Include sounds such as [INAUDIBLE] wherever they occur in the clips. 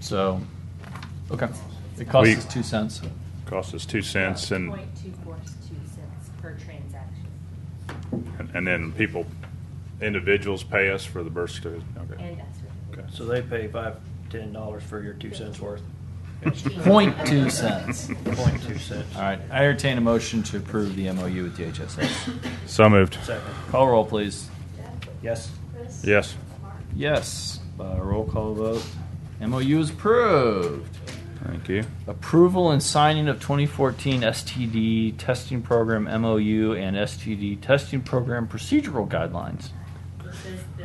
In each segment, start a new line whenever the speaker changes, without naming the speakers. So, okay, it
We-
costs us two cents.
Costs us two cents and,
Point two four two cents per transaction.
and then people, individuals pay us for the birth certificate. Okay.
And us.
Okay.
So they pay five, ten dollars for your two cents worth,
Point two cents.
point two cents.
All right, I entertain a motion to approve the MOU with DHSS.
So moved.
Second,
Call roll, please.
yes,
Yes.
Yes, uh, roll call vote. MOU is approved.
Thank you.
Approval and signing of 2014 STD testing program MOU and STD testing program procedural guidelines.
This is the,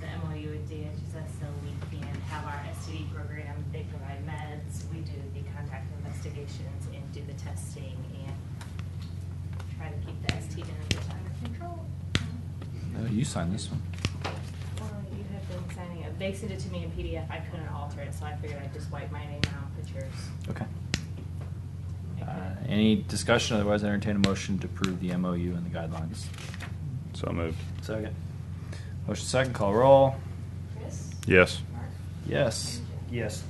the MOU with DHSS, so we can have our STD program, they provide meds, we do the contact investigations and do the testing and try to keep the STD numbers under control.
No, you signed this one.
Well, you have been signing it, they sent it to me in PDF, I couldn't alter it, so I figured I'd just wipe my name out, and put yours.
Okay.
I
Uh,
couldn't-
any discussion? Otherwise, I entertain a motion to approve the MOU and the guidelines.
So moved.
second,
Motion second, call roll.
Yes.
Yes.
yes.
There's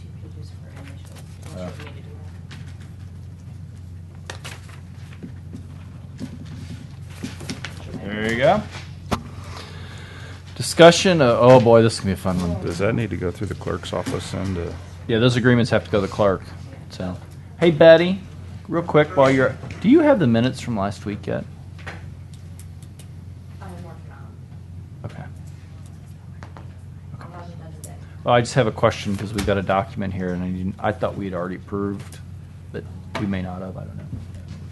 two pages for initials,
Uh.
unless you need to do that.
There you go. Discussion. Uh, oh boy, this is gonna be a fun one.
Does that need to go through the clerk's office and, uh,
Yeah, those agreements have to go to the clerk. So, hey Betty, real quick while you're, do you have the minutes from last week yet?
I'm working on
Okay.
it. I'm not done today.
Well, I just have a question because we've got a document here, and I, didn't, I thought we had already approved, but we may not have. I don't know.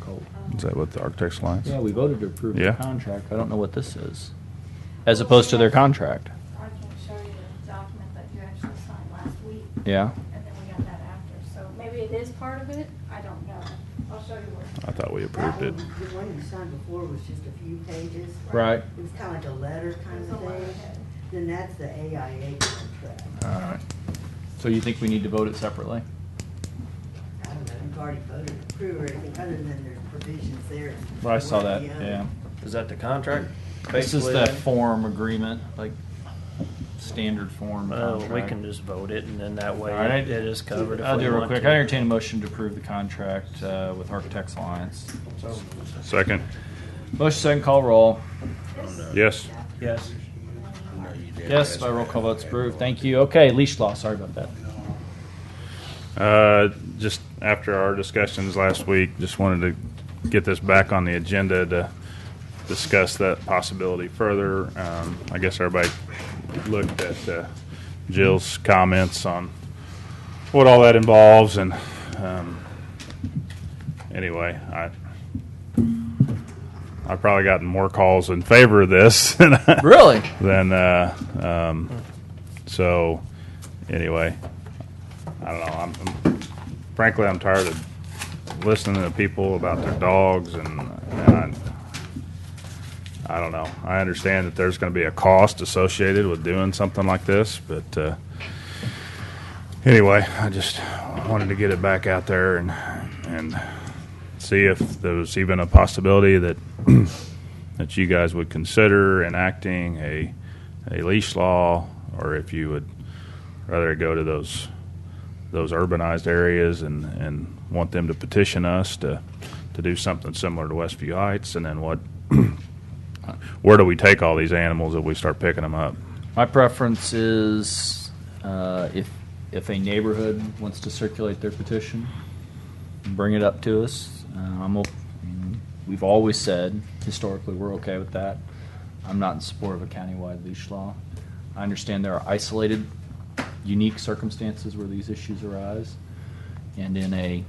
Cool.
is that with the Architects Alliance?
Yeah, we voted to approve
Yeah.
the contract. I don't know what this is, as opposed to their contract.
I can show you the document that you actually signed last week,
Yeah.
and then we got that after, so maybe it is part of it, I don't know. I'll show you what.
I thought we approved it.
That one- The one you signed before was just a few pages.
Right.
It was kind of like a letter kind
There's a
of
lot
thing.
ahead.
Then that's the AIA contract.
All right. So you think we need to vote it separately?
I don't know, you've already voted to approve or anything other than there's provisions there.
Well, I saw
One or
that.
the other.
Yeah.
Is that the contract?
This is
basically,
the
then?
form agreement, like standard form.
Well, Oh, we
contract.
can just vote it, and then that way
All right.
it is covered if
I'll
we
do it real
want
quick.
to.
I entertain a motion to approve the contract uh, with Architects Alliance.
So,
Second.
Motion second call roll.
Yes.
Yes,
Yes, by roll call votes approved. Thank you. Okay, leash law. Sorry about that.
Uh, just after our discussions last week, just wanted to get this back on the agenda to discuss that possibility further. Um, I guess everybody looked at uh, Jill's comments on what all that involves, and um, anyway, I. I've probably gotten more calls in favor of this [LAUGHS] than I-
Really?
than uh, um, so anyway i don't know I'm, I'm frankly i'm tired of listening to people about their dogs and, and I, I don't know i understand that there's going to be a cost associated with doing something like this but uh, anyway i just wanted to get it back out there and and see if there was even a possibility that [CLEARS THROAT] that you guys would consider enacting a a leash law, or if you would rather go to those those urbanized areas and and want them to petition us to to do something similar to Westview Heights, and then what? [CLEARS THROAT] where do we take all these animals if we start picking them up?
My preference is uh, if if a neighborhood wants to circulate their petition, bring it up to us. Uh, I'm op- we've always said historically we're okay with that. I'm not in support of a countywide leash law. I understand there are isolated, unique circumstances where these issues arise, and in a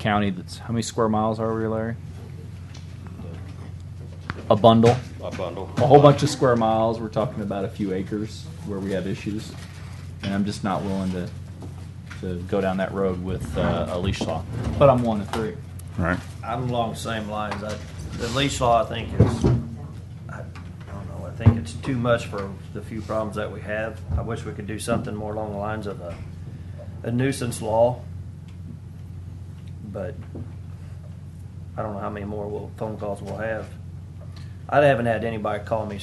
county that's how many square miles are we, Larry? A bundle
A bundle.
a whole bunch of square miles. We're talking about a few acres where we have issues, and I'm just not willing to to go down that road with uh, a leash law. But I'm one to three.
Right?
I'm along the same lines. I, the leash law, I think is, I don't know, I think it's too much for the few problems that we have. I wish we could do something more along the lines of a, a nuisance law. But I don't know how many more will, phone calls we'll have. I haven't had anybody call me